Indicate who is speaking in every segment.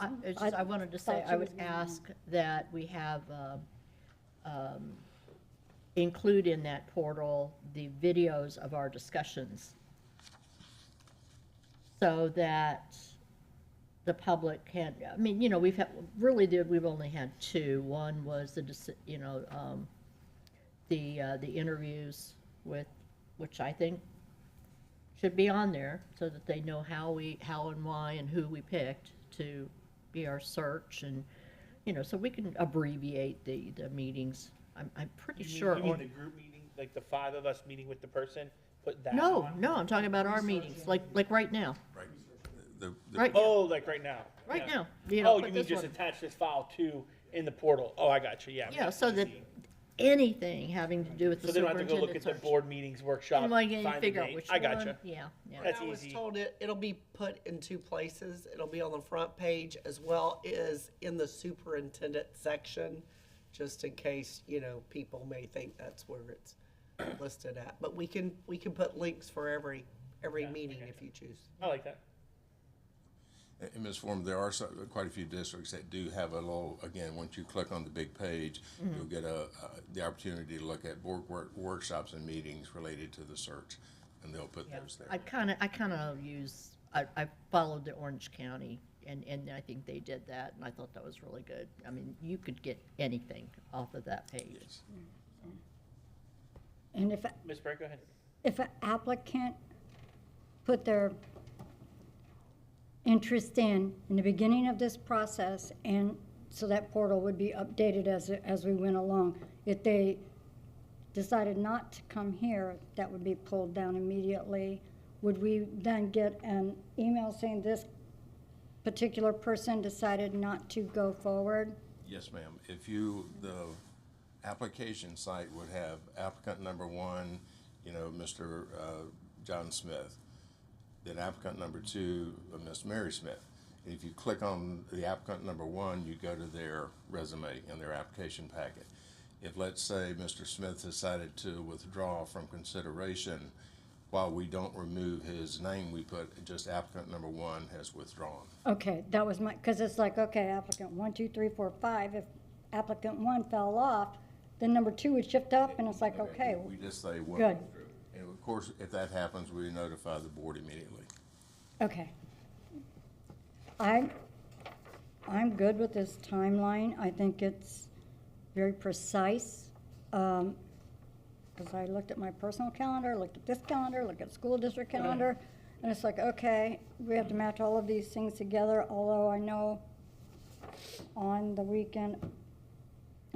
Speaker 1: I, it's just, I wanted to say,
Speaker 2: thought
Speaker 1: I
Speaker 2: you
Speaker 1: would
Speaker 2: would
Speaker 1: ask that we have, um, um, include in that portal the videos of our discussions. So that the public can, I mean, you know, we've had, really did, we've only had two. One was the, deci- you know, um, the, uh, the interviews with, which I think should be on there so that they know how we, how and why and who we picked to be our search and, you know, so we can abbreviate the, the meetings. I'm, I'm pretty
Speaker 3: You mean-
Speaker 1: sure.
Speaker 3: You mean
Speaker 1: or-
Speaker 3: the group meeting, like the five of us meeting with the person, put that
Speaker 1: No,
Speaker 3: on?
Speaker 1: no, I'm talking about our meetings, like, like right now,
Speaker 4: Right. The- the-
Speaker 1: right now,
Speaker 3: Oh, like right now?
Speaker 1: right
Speaker 3: yeah.
Speaker 1: now. You know,
Speaker 3: Oh,
Speaker 1: put
Speaker 3: you mean
Speaker 1: this
Speaker 3: just
Speaker 1: one-
Speaker 3: attach this file to, in the portal? Oh, I got you, yeah.
Speaker 1: Yeah, so that anything having to do with
Speaker 3: So
Speaker 1: the
Speaker 3: they don't have to go look
Speaker 1: superintendent's
Speaker 3: at the
Speaker 1: search.
Speaker 3: board meetings workshop,
Speaker 1: And
Speaker 3: find
Speaker 1: like,
Speaker 3: the
Speaker 1: you figure out
Speaker 3: date.
Speaker 1: which
Speaker 3: I
Speaker 1: one.
Speaker 3: got you.
Speaker 1: Yeah, yeah.
Speaker 3: That's
Speaker 5: I was
Speaker 3: easy.
Speaker 5: told it, it'll be put in two places. It'll be on the front page as well as in the superintendent section, just in case, you know, people may think that's where it's listed at. But we can, we can put links for every, every meeting if you choose.
Speaker 3: I like that.
Speaker 4: In this form, there are so- quite a few districts that do have a little, again, once you click on the big page,
Speaker 1: Mm-hmm.
Speaker 4: you'll get a, a- the opportunity to look at board work- workshops and meetings related to the search, and they'll put those
Speaker 1: I
Speaker 4: there.
Speaker 1: kind of, I kind of use, I, I followed the Orange County and, and I think they did that and I thought that was really good. I mean, you could get anything off of that page.
Speaker 4: Yes.
Speaker 2: And if,
Speaker 3: Ms. Brett, go ahead.
Speaker 2: if an applicant put their interest in, in the beginning of this process, and so that portal would be updated as, as we went along. If they decided not to come here, that would be pulled down immediately. Would we then get an email saying this particular person decided not to go forward?
Speaker 4: Yes, ma'am. If you, the application site would have applicant number one, you know, Mr. uh, John Smith. Then applicant number two, uh, Miss Mary Smith. If you click on the applicant number one, you go to their resume and their application packet. If, let's say, Mr. Smith decided to withdraw from consideration, while we don't remove his name, we put just applicant number one has withdrawn.
Speaker 2: Okay, that was my, because it's like, okay, applicant one, two, three, four, five, if applicant one fell off, then number two would shift up, and it's like, okay,
Speaker 4: We just say one.
Speaker 2: Good.
Speaker 4: And of course, if that happens, we notify the board immediately.
Speaker 2: okay. I'm, I'm good with this timeline, I think it's very precise. Because I looked at my personal calendar, looked at this calendar, looked at school district calendar, and it's like, okay, we have to match all of these things together, although I know on the weekend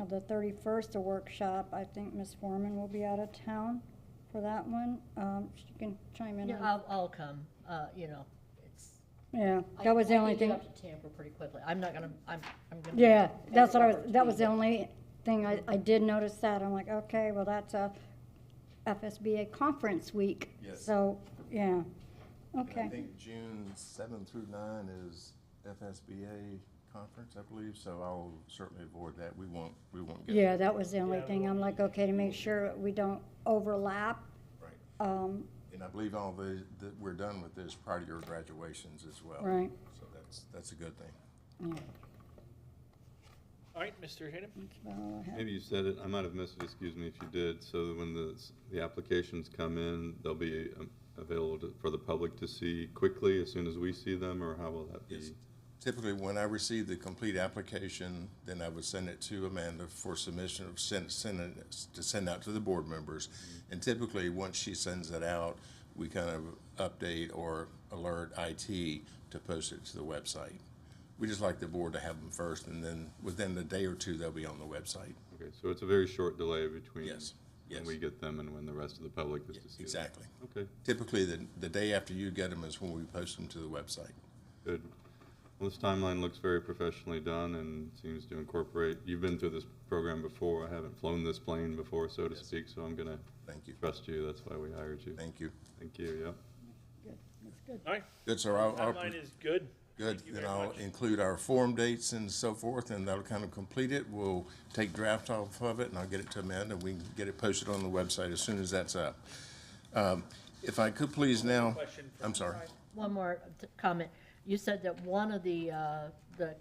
Speaker 2: of the 31st, a workshop, I think Ms. Foreman will be out of town for that one. Um, She can chime in
Speaker 1: Yeah,
Speaker 2: on,
Speaker 1: I'll, I'll come, uh, you know, it's.
Speaker 2: yeah,
Speaker 1: I-
Speaker 2: that was the
Speaker 1: I
Speaker 2: only
Speaker 1: can get
Speaker 2: thing.
Speaker 1: up to Tampa pretty quickly. I'm not gonna, I'm, I'm gonna.
Speaker 2: Yeah, that's what I was,
Speaker 1: Everywhere
Speaker 2: that was the
Speaker 1: between-
Speaker 2: only thing I, I did notice that. I'm like, okay, well, that's a FSBA conference week.
Speaker 4: Yes.
Speaker 2: So, yeah,
Speaker 4: And I
Speaker 2: okay.
Speaker 4: think June seventh through nine is FSBA conference, I believe, so I'll certainly avoid that. We won't, we won't get.
Speaker 2: Yeah, that was the only
Speaker 3: Yeah,
Speaker 2: thing. I'm like, okay, to make sure we don't overlap.
Speaker 4: Right.
Speaker 2: Um,
Speaker 4: And I believe all the, that we're done with this prior to your graduations as well.
Speaker 2: Right.
Speaker 4: So that's, that's a good thing.
Speaker 2: yeah,
Speaker 3: All right, Mr. Hayden?
Speaker 2: that's about all I had.
Speaker 6: Maybe you said it, I might have missed it, excuse me if you did, so that when the, s- the applications come in, they'll be um, available to- for the public to see quickly as soon as we see them, or how will that be?
Speaker 4: Typically, when I receive the complete application, then I would send it to Amanda for submission of send, send it, to send out to the board members. And typically, once she sends it out, we kind of update or alert IT to post it to the website. We just like the board to have them first, and then within a day or two, they'll be on the website.
Speaker 6: Okay, so it's a very short delay between.
Speaker 4: Yes, yes.
Speaker 6: When we get them and when the rest of the public is to see them.
Speaker 4: Exactly.
Speaker 6: Okay,
Speaker 4: Typically, the, the day after you get them is when we post them to the website.
Speaker 6: good. Well, this timeline looks very professionally done and seems to incorporate, you've been through this program before, I haven't flown this plane before, so to speak, so I'm gonna
Speaker 4: Thank you.
Speaker 6: trust you, that's why we hired you.
Speaker 4: Thank you.
Speaker 6: Thank you, yep.
Speaker 3: All right,
Speaker 4: Good, sir. I'll, I'll.
Speaker 3: timeline is good.
Speaker 4: Good,
Speaker 3: Thank you
Speaker 4: then
Speaker 3: very
Speaker 4: I'll
Speaker 3: much.
Speaker 4: include our form dates and so forth, and that'll kind of complete it. We'll take draft off of it, and I'll get it to Amanda, and we can get it posted on the website as soon as that's up. Um, If I could please now,
Speaker 3: Question from-
Speaker 4: I'm sorry.
Speaker 1: One more t- comment. You said that one of the, uh,